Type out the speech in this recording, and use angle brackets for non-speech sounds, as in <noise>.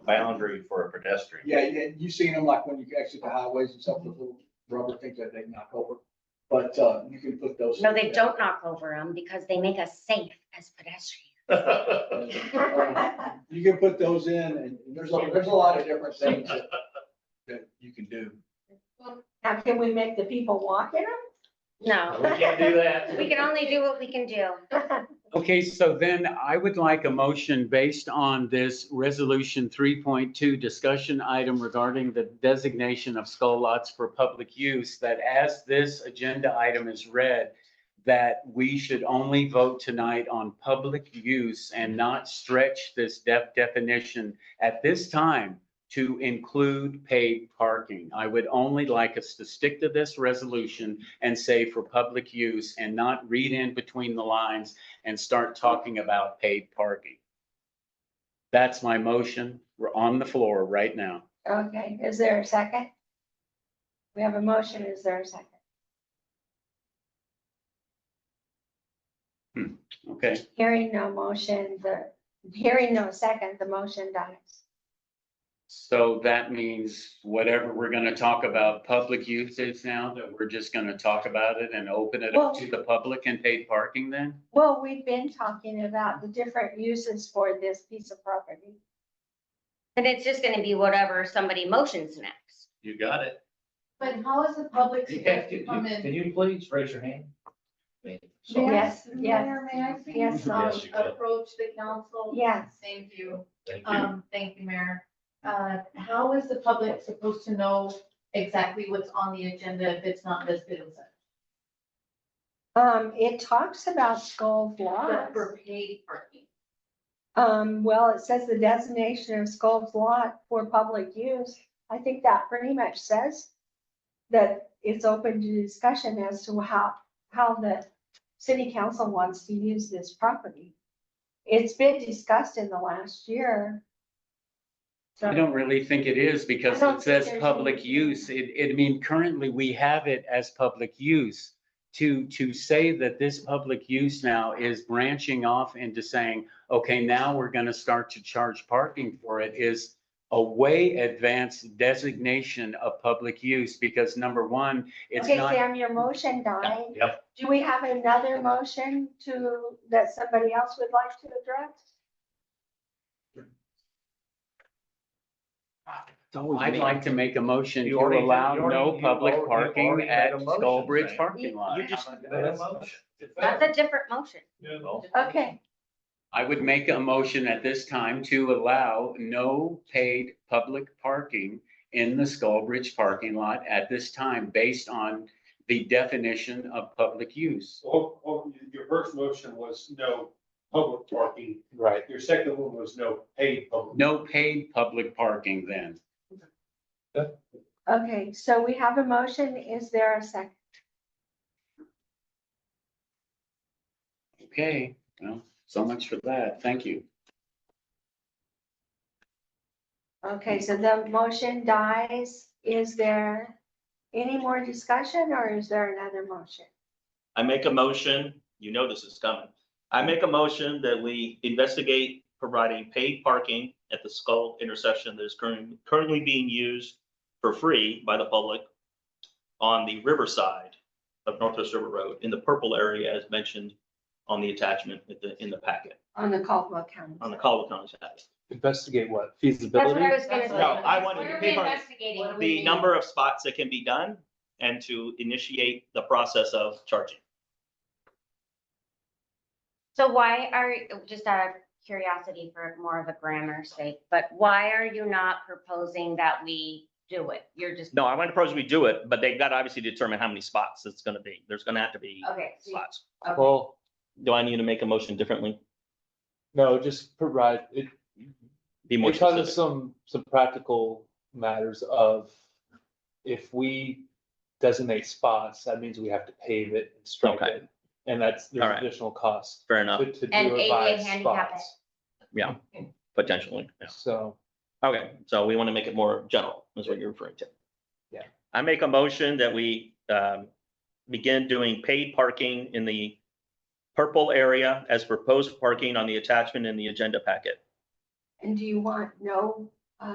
boundary for a pedestrian. Yeah, yeah, you've seen them like when you exit the highways and stuff, the little rubber things that they knock over. But, uh, you can put those. No, they don't knock over them because they make us safe as pedestrians. <laughs> You can put those in and there's, a- there's a lot of different <laughs> things that, that you can do. Now, can we make the people walk in No, We can't do that. we can only do what we can do. them? <laughs> Okay, so then I would like a motion based on this resolution three point two discussion item regarding the designation of skull lots for public use, that as this agenda item is read, that we should only vote tonight on public use and not stretch this def- definition at this time to include paid parking. I would only like us to stick to this resolution and say for public use and not read in between the lines and start talking about paid parking. That's my motion. We're on the floor right now. Okay, is there a second? We have a motion, is there a second? Okay, Hearing no motion, the, hearing no second, the motion dies. so that means whatever we're gonna talk about public uses now, that we're just gonna talk about it and open it up to the public and paid parking then? Well, we've been talking about the different uses for this piece of property. And it's just gonna be whatever somebody motions next. You got it. But how is the public supposed to come in? Can you please raise your hand? May I- Yes, yes, Mayor, May I please? yes, um, Yes, you can. Approach the council? Yes. Thank you. Thank you. Um, thank you, Mayor. Uh, how is the public supposed to know exactly what's on the agenda if it's not listed as such? Um, it talks about skull But blocks. For paid parking. Um, well, it says the designation of Sculp's Lot for public use. I think that pretty much says that it's open to discussion as to how, how the city council wants to use this property. It's been discussed in the last year. So- I don't really think it is I because don't it think says there's public any- use. It, it, I mean, currently we have it as public use. To, to say that this public use now is branching off into saying, okay, now we're gonna start to charge parking for it is a way advanced designation of public use because number one, it's Okay, not, Sam, your motion died. Yep. Do we have another motion to, that somebody else would like to address? I'd like to make a motion to You already- allow you already- no you public already- you parking already made at a motion, Skull Bridge Sam. parking lot. You just made a motion. That's a different motion. No. Okay, I would make a motion at this time to allow no paid public parking in the Skullbridge parking lot at this time based on the definition of public use. Well, well, your first motion was no public parking. Right. Your second one was no paid public. No paid public parking then. okay, so we have a motion. Is there a second? Okay, well, so much for that. Thank you. Okay, so the motion dies. Is there any more discussion or is there another motion? I make a motion, you know this is coming. I make a motion that we investigate providing paid parking at the Skull intersection that is currently, currently being used for free by the public on the riverside of Northwest River Road in the purple area as mentioned on the attachment in the, in the packet, On the Caldwell County. on the Caldwell County side. Investigate what? That's what Feasibility? I was gonna say. No, I wanted What to are we pick on- investigating? What do we The need? number of spots that can be done and to initiate the process of charging. So why are, just out of curiosity for more of a grammar sake, but why are you not proposing that we do it? You're just. No, I want to propose we do it, but they've got to obviously determine how many spots it's going to be. There's going to have to be Okay. so you- spots. okay. Well, Do I need to make a motion differently? no, just provide, it, Be more because of specific. some, some practical matters of if we designate spots, that means we have to pave it and stripe Okay. it. And that's, there's Alright. additional cost Fair enough, to, to And do ADA it by handicap it. spots. potentially. yeah. So. Okay, so we want to make it more general, is what you're referring to. Yeah. I make a motion that we um, begin doing paid parking in the purple area as proposed parking on the attachment in the agenda packet. And do you want no